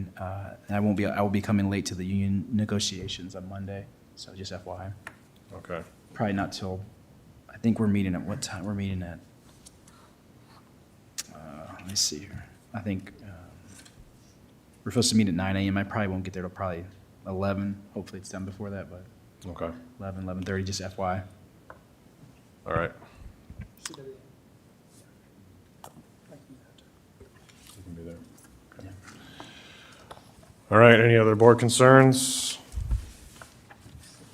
Uh, And I won't be, I will be coming late to the union negotiations on Monday, so just FYI. Okay. Probably not till, I think we're meeting at what time? We're meeting at, uh, let me see here. I think um, we're supposed to meet at nine AM. I probably won't get there till probably eleven. Hopefully it's done before that, but Okay. 11, 11:30, just FYI. All right. You can be there. Okay. All right, any other board concerns?